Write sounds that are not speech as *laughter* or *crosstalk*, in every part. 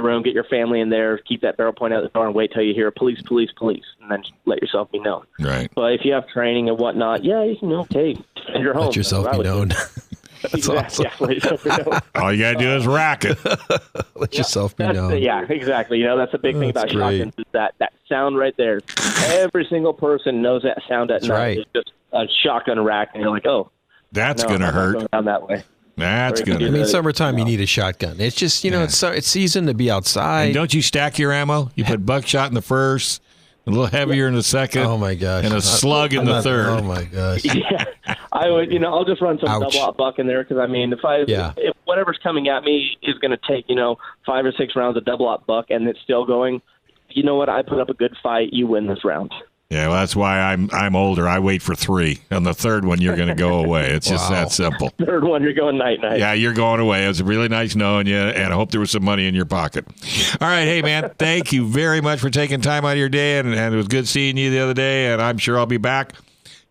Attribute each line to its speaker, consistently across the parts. Speaker 1: the room, get your family in there, keep that barrel point out the door, and wait till you hear police, police, police, and then just let yourself be known.
Speaker 2: Right.
Speaker 1: But if you have training and whatnot, yeah, you can okay, defend your home.
Speaker 3: Let yourself
Speaker 1: That's
Speaker 3: be
Speaker 1: what I would
Speaker 3: known.
Speaker 1: do.
Speaker 3: That's
Speaker 1: Exactly. Yeah,
Speaker 3: awesome.
Speaker 1: let yourself be known.
Speaker 2: All you gotta do is rack it.
Speaker 3: *laughs* Let yourself be
Speaker 1: That's the-
Speaker 3: known.
Speaker 1: yeah, exactly. You know, that's the big thing
Speaker 3: That's
Speaker 1: about
Speaker 3: great.
Speaker 1: shotguns is that that sound right there. Every single person knows that sound at
Speaker 3: That's
Speaker 1: night.
Speaker 3: right.
Speaker 1: It's just a shotgun rack, and you're like, oh,
Speaker 2: That's
Speaker 1: no,
Speaker 2: gonna
Speaker 1: I'm not
Speaker 2: hurt.
Speaker 1: going down that way. Or
Speaker 2: That's
Speaker 1: you can
Speaker 2: gonna.
Speaker 3: I
Speaker 2: Hurt.
Speaker 3: mean,
Speaker 1: Yeah.
Speaker 3: summertime you need a shotgun. It's just you know
Speaker 2: Yeah.
Speaker 3: it's su- it's season to be
Speaker 2: And
Speaker 3: outside.
Speaker 2: don't you stack your ammo? You put buckshot in the first, a little heavier in the second.
Speaker 3: Oh my gosh!
Speaker 2: And a
Speaker 3: I'm-
Speaker 2: slug in
Speaker 3: I'm
Speaker 2: the
Speaker 3: not-
Speaker 2: third.
Speaker 3: Oh my gosh!
Speaker 1: yeah, I would. You know, I'll just run some
Speaker 3: Ouch.
Speaker 1: double out buck in there because I mean, if I
Speaker 3: Yeah.
Speaker 1: if whatever's coming at me is going to take you know five or six rounds of double out buck and it's still going, you know what? I put up a good fight. You win this round. *laughs*
Speaker 2: Yeah, well, that's why I'm I'm older. I wait for three. On the third one, you're gonna go away. It's just
Speaker 3: Wow.
Speaker 2: that simple.
Speaker 1: Third one, you're going night night.
Speaker 2: Yeah, you're going away. It was really nice knowing you, and I hope there was some money in your pocket. All right, hey man, thank you very much for taking time out of your day, and, and it was good seeing you the other day. And I'm sure I'll be back.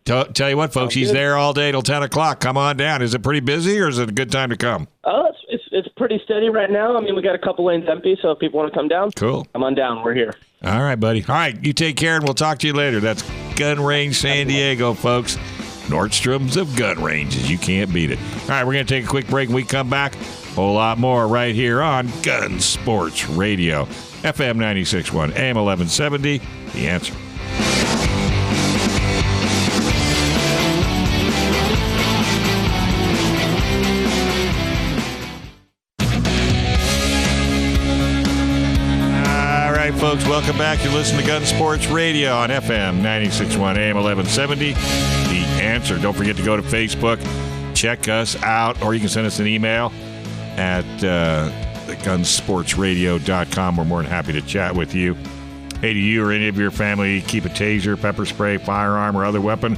Speaker 2: Tell, tell you what, folks, he's there all day till ten o'clock. Come on down. Is it pretty busy, or is it a good time to come?
Speaker 1: Oh, it's, it's it's pretty steady right now. I mean, we got a couple lanes empty, so if people want to come down,
Speaker 2: Cool.
Speaker 1: come on down. We're here.
Speaker 2: All right, buddy. All right, you take care, and we'll talk to you later. That's Gun Range San Diego, folks. Nordstrom's of gun ranges. You can't beat it. All right, we're going to take a quick break. When we come back, a whole lot more right here on Gun Sports Radio, FM 96.1, AM 1170. The answer. All right, folks, welcome back. You listen to Gun Sports Radio on FM 96.1 AM 1170. The answer. Don't forget to go to Facebook, check us out, or you can send us an email at uh, gunsportsradio.com. We're more than happy to chat with you. Hey, do you or any of your family keep a taser, pepper spray, firearm, or other weapon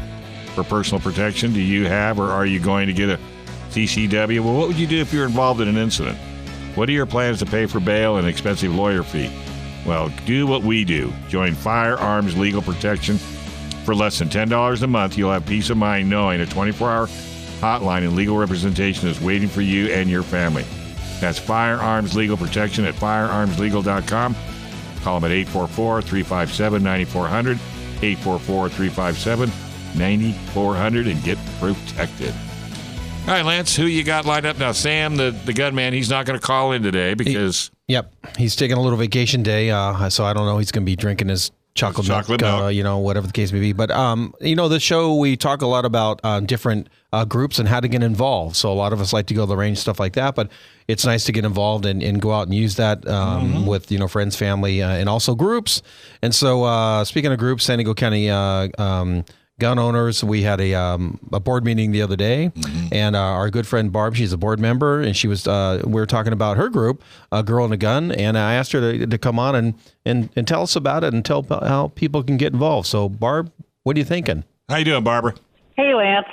Speaker 2: for personal protection? Do you have, or are you going to get a CCW? Well, what would you do if you were involved in an incident? What are your plans to pay for bail and expensive lawyer fee? Well, do what we do. Join Firearms Legal Protection for less than $10 a month. You'll have peace of mind knowing a 24 hour hotline and legal representation is waiting for you and your family. That's Firearms Legal Protection at firearmslegal.com. Call them at 844 357 9400, 844 357 9400, and get protected. All right, Lance, who you got lined up now? Sam, the, the gunman, he's not going to call in today because
Speaker 3: Yep, he's taking a little vacation day, uh, so I don't know. He's going to be drinking his chocolate,
Speaker 2: Chocolate
Speaker 3: milk, Uh,
Speaker 2: milk.
Speaker 3: you know, whatever the case may be. But um, you know, the show we talk a lot about um, different uh, groups and how to get involved. So a lot of us like to go to the range, stuff like that. But it's nice to get involved and, and go out and use that um, with you know friends, family, uh, and also groups. And so uh, speaking of groups, San Diego County. Uh, um, gun owners. We had a, um, a board meeting the other day, and uh, our good friend Barb, she's a board member, and she was uh, we were talking about her group, a girl and a gun, and I asked her to, to come on and, and and tell us about it and tell p- how people can get involved. So, Barb, what are you thinking?
Speaker 2: how you doing, Barbara?
Speaker 4: Hey, Lance.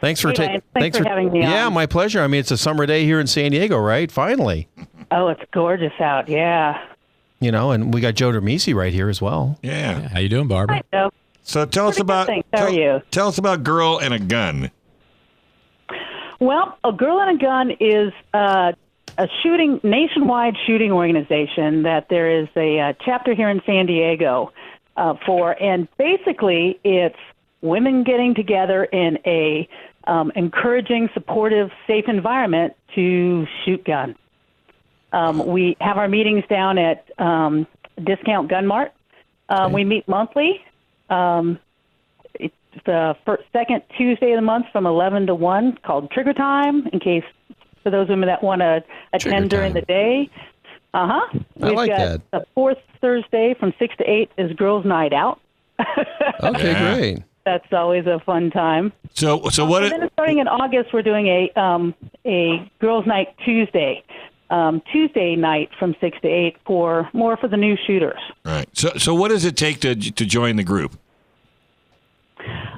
Speaker 3: Thanks for
Speaker 4: Hey,
Speaker 3: taking.
Speaker 4: Lance. Thanks for having me
Speaker 3: Yeah,
Speaker 4: on.
Speaker 3: my pleasure. I mean, it's a summer day here in San Diego, right? Finally,
Speaker 4: Oh, it's gorgeous out. Yeah.
Speaker 3: you know, and we got Joe Dermisi right here as well.
Speaker 2: Yeah.
Speaker 5: How you doing, Barbara?
Speaker 4: Hi, Joe.
Speaker 2: So tell us
Speaker 4: Pretty good,
Speaker 2: about
Speaker 4: thanks. How
Speaker 2: tell,
Speaker 4: are you?
Speaker 2: tell us about girl and a gun.
Speaker 4: Well, A Girl and a Gun is uh, a shooting nationwide shooting organization that there is a uh, chapter here in San Diego uh, for, and basically it's women getting together in a um, encouraging, supportive, safe environment to shoot gun. Um, we have our meetings down at um, Discount Gun Mart. Um, We meet monthly. Um, the first, second Tuesday of the month from 11 to 1 called Trigger Time in case for those women that want to
Speaker 3: Trigger
Speaker 4: attend during
Speaker 3: Time.
Speaker 4: the day. Uh huh.
Speaker 3: I like
Speaker 4: got
Speaker 3: that.
Speaker 4: The fourth Thursday from 6 to 8 is Girls Night Out.
Speaker 3: Okay,
Speaker 2: Yeah.
Speaker 3: great.
Speaker 4: That's always a fun time.
Speaker 2: So so what?
Speaker 4: And Oh, then starting in August, we're doing a um, a girls' night Tuesday, um, Tuesday night from six to eight for more for the new shooters.
Speaker 2: right. So so what does it take to to join the group?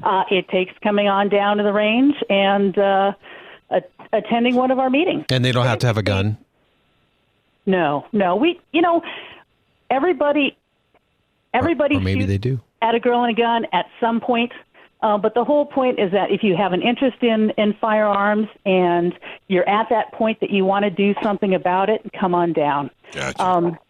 Speaker 4: Uh, it takes coming on down to the range and uh, a- attending one of our meetings.
Speaker 3: And they don't have to have a gun.
Speaker 4: No, no, we you know everybody everybody
Speaker 3: or maybe
Speaker 4: shoots
Speaker 3: they do.
Speaker 4: at a girl and a gun at some point. Uh, but the whole point is that if you have an interest in, in firearms and you're at that point that you want to do something about it, come on down.
Speaker 2: Gotcha.
Speaker 4: Um,